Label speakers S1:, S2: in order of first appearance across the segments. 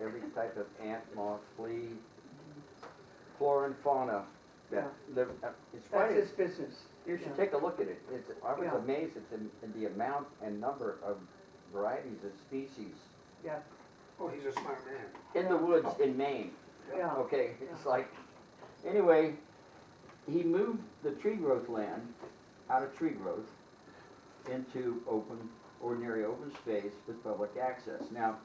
S1: every type of ant, moth, flea, flora and fauna that live, uh, it's
S2: That's
S1: right,
S2: his business.
S1: you should
S2: yeah.
S1: take a look at it. It's, I was
S2: Yeah.
S1: amazed at the, at the amount and number of varieties of species
S2: Yeah,
S3: Oh, he's a smart man.
S1: in the woods in Maine.
S2: yeah.
S1: Okay, it's like, anyway, he moved the tree growth land out of tree growth into open, ordinary open space with public access. Now,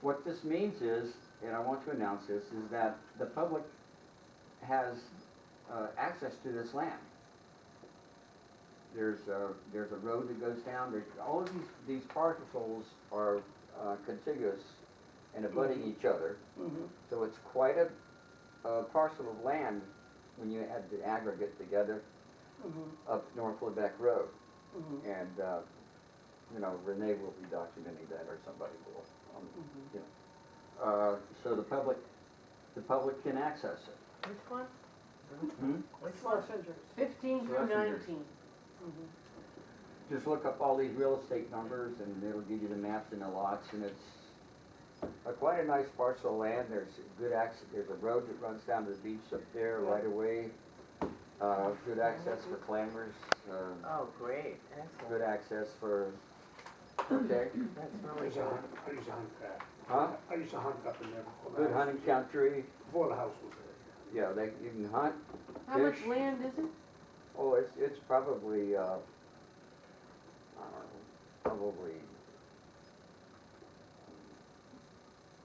S1: what this means is, and I want to announce this, is that the public has, uh, access to this land. There's a, there's a road that goes down, there's, all of these, these parcels are uh, contiguous and
S2: Mm-hmm.
S1: abutting each other.
S2: mhm.
S1: So it's quite a, a parcel of land when you add the aggregate together
S2: Mhm,
S1: up North Lebec Road.
S2: mhm,
S1: And, uh, you know, Renee will be documenting that or somebody will. um,
S2: mhm.
S1: Uh, so the public, the public can access it.
S4: Which one?
S2: Schlessinger's.
S4: Fifteen
S1: So
S4: through
S1: that's in yours.
S4: nineteen.
S2: Mhm.
S1: Just look up all these real estate numbers and it'll give you the maps and the lots and it's a quite a nice parcel of land. There's good access, there's a road that runs down to the beach up there right away. Uh, good access for clammers, uh,
S4: Oh, great,
S1: good
S4: excellent.
S1: access for, okay,
S4: That's
S3: I
S4: really
S3: used to
S4: good.
S3: hunt, I used to hunt back.
S1: huh?
S3: I used to hunt up in there before the house.
S1: Good hunting country,
S3: Before the house was there.
S1: yeah, they, you can hunt,
S4: How much
S1: Fish.
S4: land is it?
S1: oh, it's, it's probably, uh, I don't know, probably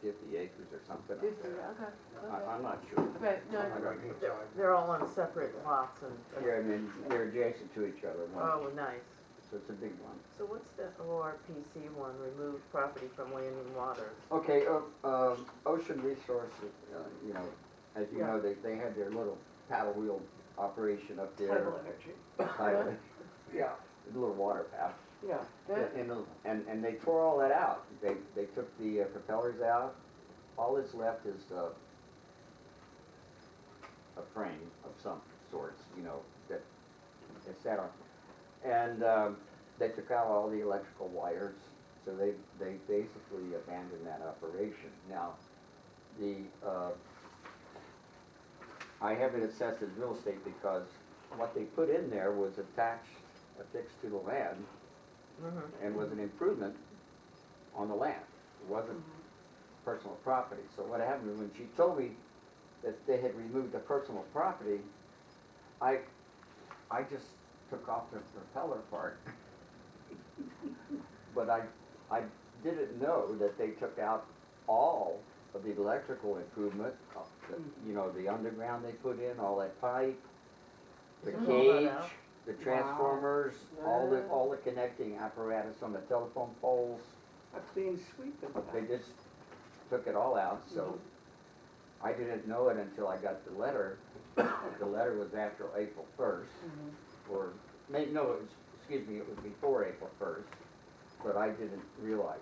S1: fifty acres or something up
S4: Fifty,
S1: there.
S4: okay,
S1: I,
S4: okay.
S1: I'm not sure.
S4: But no,
S3: I don't need to-
S4: they're all on separate lots and,
S1: Yeah, I mean, they're adjacent to each other, one,
S4: oh, nice.
S1: so it's a big one.
S4: So what's the ORPC one, remove property from land and water?
S1: Okay, uh, um, Ocean Resources, uh, you know, as you
S2: Yeah.
S1: know, they, they had their little paddle wheel operation up there.
S2: Tidal energy,
S1: Tidal,
S3: Yeah,
S1: a little water path.
S2: yeah.
S4: Good.
S1: And, and, and they tore all that out. They, they took the uh, propellers out. All that's left is, uh, a frame of some sorts, you know, that they sat on. And, um, they took out all the electrical wires, so they, they basically abandoned that operation. Now, the, uh, I have it assessed as real estate because what they put in there was attached, affixed to the land
S4: Mhm.
S1: and was an improvement on the land. It wasn't
S2: Mm-hmm.
S1: personal property. So what happened was when she told me that they had removed the personal property, I, I just took off the propeller part. But I, I didn't know that they took out all of the electrical improvement, uh, the- you know, the underground they put in, all that pipe, the
S4: Took all that
S1: cage,
S4: out?
S1: the transformers, all the, all the connecting apparatus on the telephone poles.
S2: A clean sweep of
S1: They
S2: that.
S1: just took it all out, so I didn't know it until I got the letter. The letter was after April first,
S2: Mhm.
S1: or, may, no, it was, excuse me, it was before April first, but I didn't realize,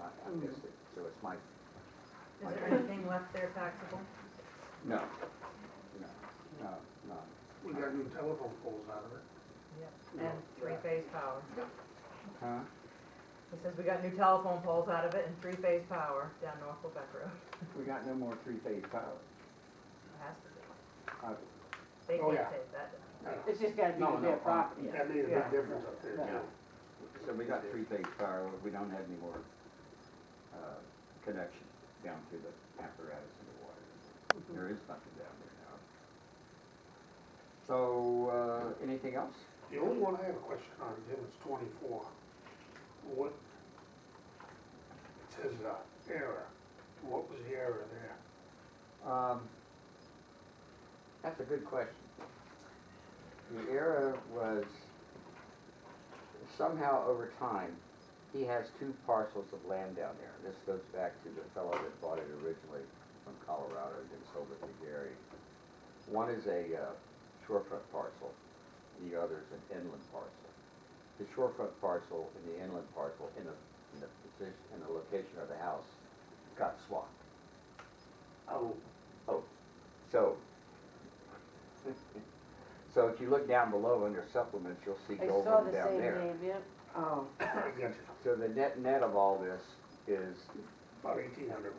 S1: I I missed it, so it's my,
S5: Is there anything left there taxable?
S1: no, no, no, no.
S3: we got new telephone poles out of it.
S5: And three-phase power.
S1: Huh?
S5: He says we got new telephone poles out of it and three-phase power down North Quebec Road.
S1: We got no more three-phase power.
S5: It has to be.
S1: Uh,
S5: They
S3: Oh,
S5: can't
S3: yeah.
S5: take that down.
S2: It's just gotta be
S1: No,
S2: to
S1: no,
S2: their
S1: uh,
S2: property.
S3: That made a
S2: Yeah.
S3: big difference up there
S2: Yeah.
S3: too.
S1: So we got three-phase power, we don't have any more, uh, connection down to the apparatus in the water. There is nothing down there now. So, uh, anything else?
S3: The only one I have a question on, Jim, is twenty-four. What, it says, uh, error. What was the error there?
S1: Um, that's a good question. The error was somehow over time, he has two parcels of land down there. This goes back to the fellow that bought it originally from Colorado and then sold it to Gary. One is a uh, shorefront parcel, the other is an inland parcel. The shorefront parcel and the inland parcel in the, in the position, in the location of the house got swapped.
S3: Oh,
S1: So, so if you look down below under supplements, you'll see
S4: I
S1: gold
S4: saw the
S1: down
S4: same
S1: there.
S4: name, yep.
S2: Oh.
S3: I got you.
S1: So the net net of all this is
S3: About eighteen hundred